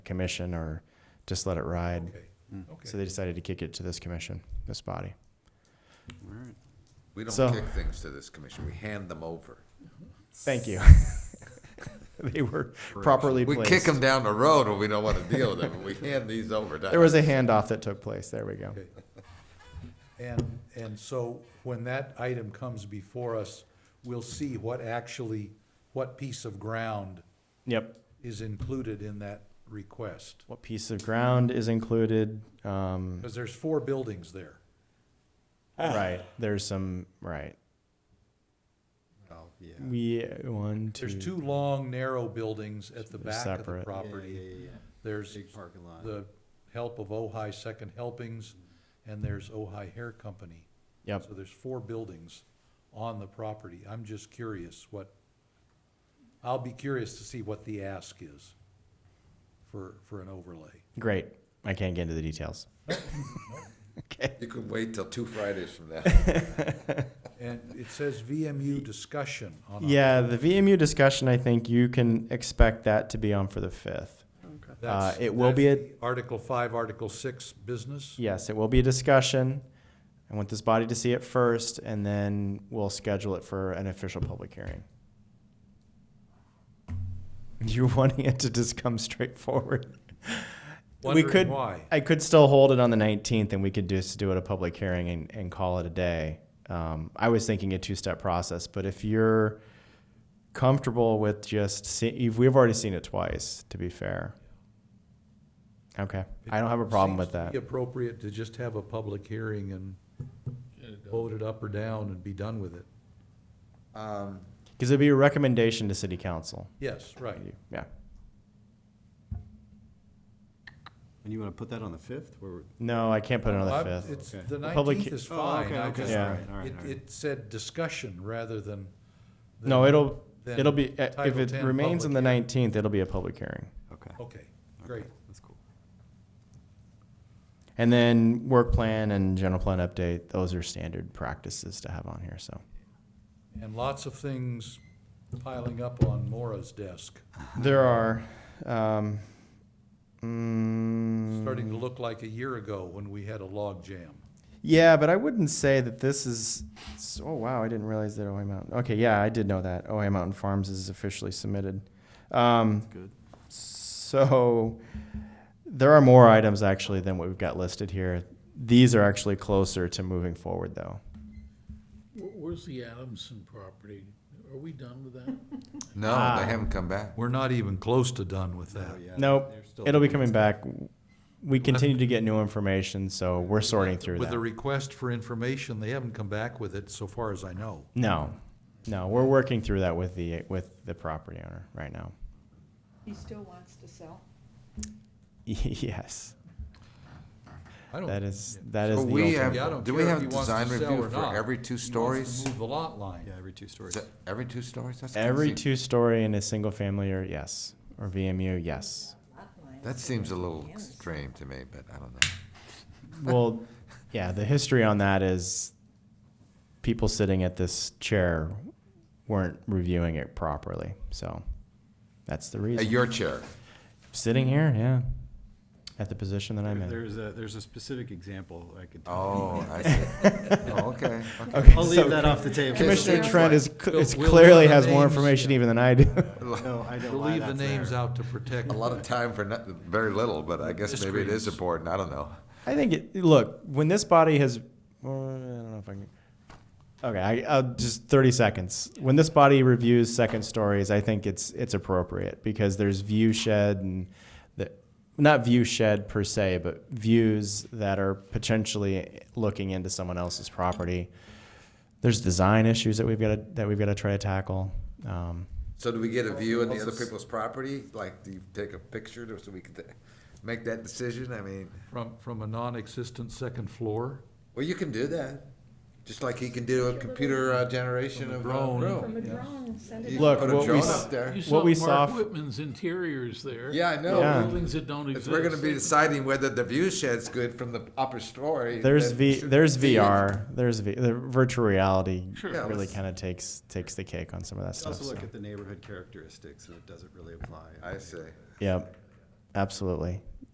commission or just let it ride. Okay, So okay. they decided to kick it to this commission, this body. We don't so- kick things to this commission, we hand them over. Thank you. they were properly We placed. kick them down the road when we don't want to deal with them, but we hand these over. There was a handoff that took place. There we go. Okay. And, and so when that item comes before us, we'll see what actually, what piece of ground Yep. is included in that request. What piece of ground is included? Um, Because there's four buildings there. Ah. right. There's some. Right. Oh, We one two. There's two long, narrow buildings at the They're back of the separate. property. There's Big parking lot. the help of Ojai Second Helpings, and there's Ojai Hair Company. Yep. So there's four buildings on the property. I'm just curious what, I'll be curious to see what the ask is for, for an overlay. Great. I can't get into the details. okay. You can wait till two Fridays from now. And it says VMU discussion on. Yeah, the VMU discussion. I think you can expect that to be on for the fifth. Uh, That's- it will be that's a- the Article five, Article six business. Yes, it will be a discussion. I want this body to see it first, and then we'll schedule it for an official public hearing. You're wanting it to just come straight forward. we Wondering could, why. I could still hold it on the 19th, and we could just do it a public hearing and, and call it a day. Um, I was thinking a two-step process, but if you're comfortable with just see, if we've already seen it twice, to be fair. Okay, I don't have a problem with Seems to that. be Appropriate to just have a public hearing and vote it up or down and be done with it. Um, Because it'd be a recommendation to city council. Yes, right. Yeah. and you want to put that on the fifth? Where we're- No, I can't put it on Well, the I- fifth. It's, Okay. the The public- nineteenth is Oh, fine, okay, I okay, just, Yeah. all right, all right, it, all right. it said discussion rather than. No, than- it'll, than it'll be, uh, if Title it 10 remains on the public hearing. nineteenth, it'll be a public hearing. Okay, Okay, great. that's cool. And then work plan and general plan update, those are standard practices to have on here, so. And lots of things piling up on Mora's desk, There are, um, mm, starting to look like a year ago when we had a log jam. yeah, but I wouldn't say that this is, s- oh wow, I didn't realize that OA Mountain, okay, yeah, I did know that. OA Mountain Farms is officially submitted. Um, Good. So there are more items actually than what we've got listed here. These are actually closer to moving forward though. Where- Where's the Adamson property? Are we done with that? No, Ah. they haven't come back. We're not even close to done with that. Nope, they're still- it'll be coming back. We continue to get new information, so we're sorting through With the that. request for information, they haven't come back with it so far as I know. No, no, we're working through that with the, with the property owner right now. He still wants to sell. Yes, I don't. that is, that is So the we ultimate. Yeah, I have, don't do we care if have he wants design to sell review or for not. every two he wants stories? to Move the lot line. Yeah, every two stories. Is that every two stories? That's Every crazy. two-story in a single family or yes, or VMU, yes. That seems a little extreme to me, but I don't know. Well, yeah, the history on that is people sitting at this chair weren't reviewing it properly. So that's the Hey, reason. your chair. sitting here, yeah, at the position that I'm There- in. There's a, there's a specific example I could. tell Oh, you. I see. Oh, okay, okay. Okay, I'll so leave that off the table. Commissioner Yeah. Trent is, cl- We'll- is we'll clearly leave the has more names, information even than I do. No, I don't. We'll leave the names out to protect. A lot of time for not, very little, but I guess maybe it is Disagreements. important, I don't know. I think it, look, when this body has, well, I don't know if I can. Okay, I, I'll just 30 seconds. When this body reviews second stories, I think it's it's appropriate because there's view shed and the, not view shed per se, but views that are potentially looking into someone else's property. There's design issues that we've got to, that we've got to try to tackle. Um, So do we get a view of the other people's property? Like, do you take a picture to- so we can ta- make that decision? I mean, From, from a non-existent second floor? well, you can do that. Just like he can do a computer uh, generation of a Drone. room. From a drone, send it. You can Look, put a what we drone s- up there. You we saw saw- Mark Whitman's interiors there. Yeah, I know. Yeah. Buildings that don't If exist. we're gonna be deciding whether the view shed's good from the upper story. there's then v, we should there's see it. VR, there's v, the virtual reality Sure. Yeah, really let's- kind of takes takes the cake on some of that stuff. Also so. look at the neighborhood characteristics and it doesn't really apply. I see. Yep. Absolutely.